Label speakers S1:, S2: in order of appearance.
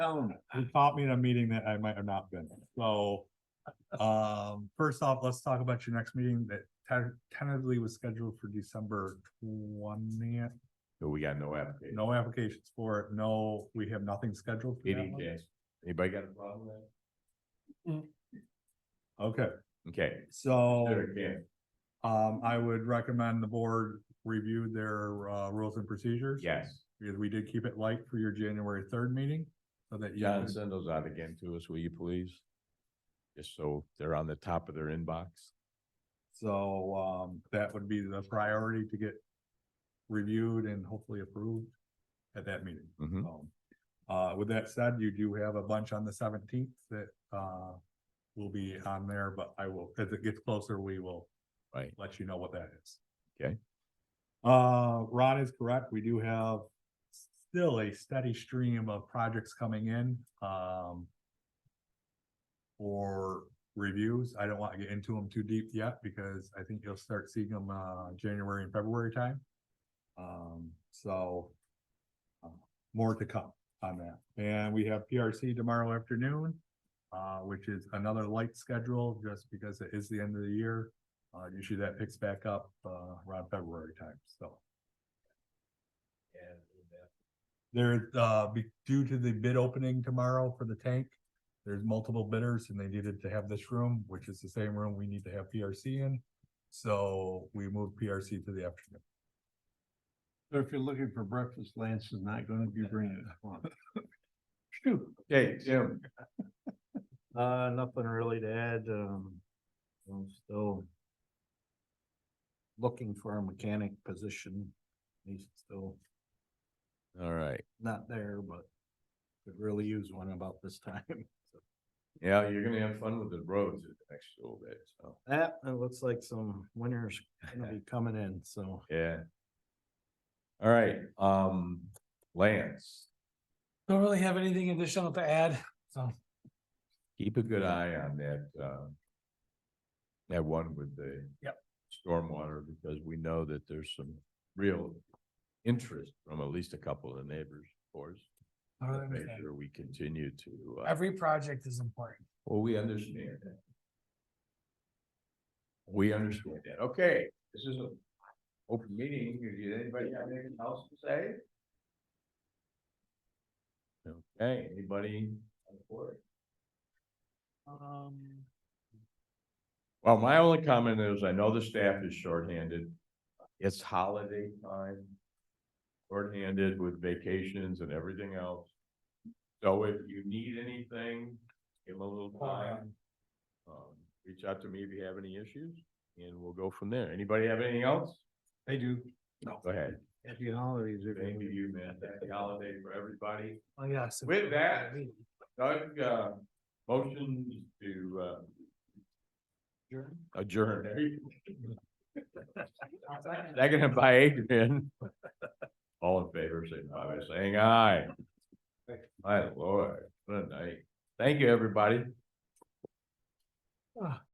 S1: down.
S2: You caught me in a meeting that I might have not been, so. Um, first off, let's talk about your next meeting that ten- tentatively was scheduled for December twentieth.
S1: So we got no application.
S2: No applications for it, no, we have nothing scheduled. for that
S1: Any
S2: one.
S1: days. Anybody got a problem with
S2: Okay,
S1: that? Okay.
S2: so.
S1: There again,
S2: Um, I would recommend the board review their, uh, rules and procedures.
S1: yes.
S2: Because we did keep it light for your January third meeting, so that you,
S1: John,
S2: could-
S1: send those out again to us, will you please? Just so they're on the top of their inbox.
S2: so, um, that would be the priority to get reviewed and hopefully approved at that meeting.
S1: Mhm.
S2: Um, Uh, with that said, you do have a bunch on the seventeenth that, uh, will be on there, but I will, as it gets closer, we will
S1: Right.
S2: let you know what that is.
S1: Okay.
S2: Uh, Ron is correct. We do have still a steady stream of projects coming in, um, for reviews. I don't want to get into them too deep yet because I think you'll start seeing them, uh, January and February time. Um, so uh, more to come on that. And we have PRC tomorrow afternoon, uh, which is another light schedule just because it is the end of the year. Uh, usually that picks back up, uh, around February time, so. There, uh, be, due to the bid opening tomorrow for the tank, there's multiple bidders and they needed to have this room, which is the same room we need to have PRC in. So we moved PRC to the afternoon.
S3: So if you're looking for breakfast, Lance is not gonna be bringing it. Shoot,
S1: Okay, Jim.
S3: uh, nothing really to add, um, I'm still looking for a mechanic position. He's still
S1: All right,
S3: not there, but could really use one about this time.
S1: yeah, you're gonna have fun with the roads the next little bit, so,
S3: That, it looks like some winter's gonna be coming in, so.
S1: yeah. All right, um, Lance,
S4: Don't really have anything additional to add, so.
S1: keep a good eye on that, uh, that one with the stormwater, because we know that there's some real interest from at least a couple of the neighbors, of course.
S4: totally
S1: Make
S4: understand.
S1: sure we continue to, uh,
S4: Every project is important.
S1: Well, we understand that. We understand that. Okay, this is an open meeting. Does anybody have anything else to say? Okay, anybody on the board?
S4: Um,
S1: Well, my only comment is I know the staff is shorthanded. It's holiday time. Shorthanded with vacations and everything else. So if you need anything, give them a little time. Um, reach out to me if you have any issues and we'll go from there. Anybody have anything else?
S3: I do.
S1: Go ahead.
S3: Happy holidays,
S1: Thank
S3: everybody.
S1: you, man. Happy holiday for everybody.
S4: oh, yes.
S1: With that- Doug, uh, motion to, uh, adjourn. Second by Adrian. All in favor, signify by saying aye. My lord, what a night. Thank you, everybody.